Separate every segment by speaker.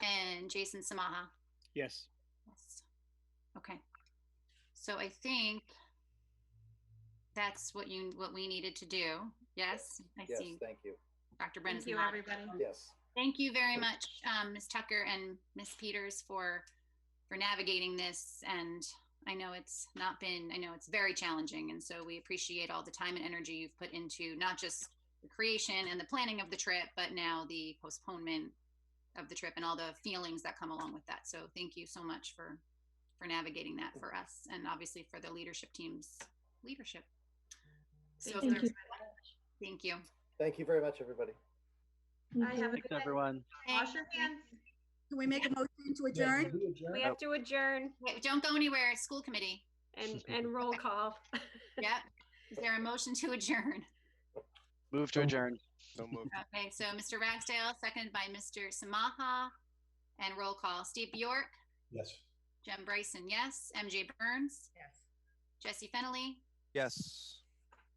Speaker 1: and Jason Samaha.
Speaker 2: Yes.
Speaker 1: Yes. Okay. So I think that's what you, what we needed to do. Yes, I
Speaker 3: Yes,
Speaker 1: see
Speaker 3: thank you.
Speaker 1: Dr. Brenna's
Speaker 4: Thank you,
Speaker 1: nodding.
Speaker 4: everybody.
Speaker 3: Yes.
Speaker 1: Thank you very much, um, Ms. Tucker and Ms. Peters for, for navigating this. And I know it's not been, I know it's very challenging. And so we appreciate all the time and energy you've put into not just the creation and the planning of the trip, but now the postponement of the trip and all the feelings that come along with that. So thank you so much for, for navigating that for us and obviously for the leadership team's leadership. So,
Speaker 4: Thank you.
Speaker 1: thank you.
Speaker 3: Thank you very much, everybody.
Speaker 4: I have a
Speaker 5: Thanks,
Speaker 4: good night.
Speaker 5: everyone.
Speaker 4: Wash your hands.
Speaker 6: Can we make a motion to adjourn?
Speaker 7: adjourn?
Speaker 4: We have to adjourn
Speaker 1: Wait, Don't go anywhere, it's school committee.
Speaker 4: and, and roll call.
Speaker 1: Yep. Is there a motion to adjourn?
Speaker 5: Move to adjourn.
Speaker 7: So moved.
Speaker 1: Okay, so Mr. Ragsdale, seconded by Mr. Samaha. And roll call, Steve Bjork,
Speaker 7: Yes.
Speaker 1: Jen Bryson, yes. MJ Burns. Yes. Jesse Fennelly,
Speaker 7: Yes.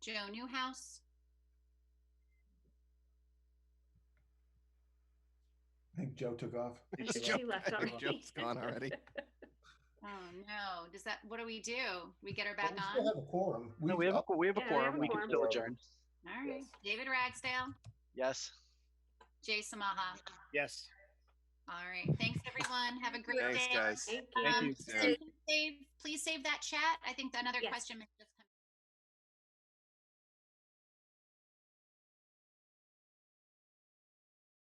Speaker 1: Joe Newhouse,
Speaker 7: I think Joe took off.
Speaker 4: She left
Speaker 7: I think
Speaker 4: already.
Speaker 7: Joe's gone already.
Speaker 1: Oh, no. Does that, what do we do? We get her back
Speaker 7: But we
Speaker 1: on?
Speaker 7: still have a quorum.
Speaker 5: No, we have a, we have a
Speaker 4: Yeah, we have
Speaker 5: quorum.
Speaker 4: a
Speaker 5: We can
Speaker 4: quorum.
Speaker 5: still adjourn.
Speaker 1: All right.
Speaker 3: Yes.
Speaker 1: David Ragsdale,
Speaker 5: Yes.
Speaker 1: Jay Samaha.
Speaker 2: Yes.
Speaker 1: All right. Thanks, everyone. Have a great day.
Speaker 4: Thank you.
Speaker 1: Um,
Speaker 2: you.
Speaker 1: Susan, save- Please save that chat. I think another
Speaker 4: Yes.
Speaker 1: question may just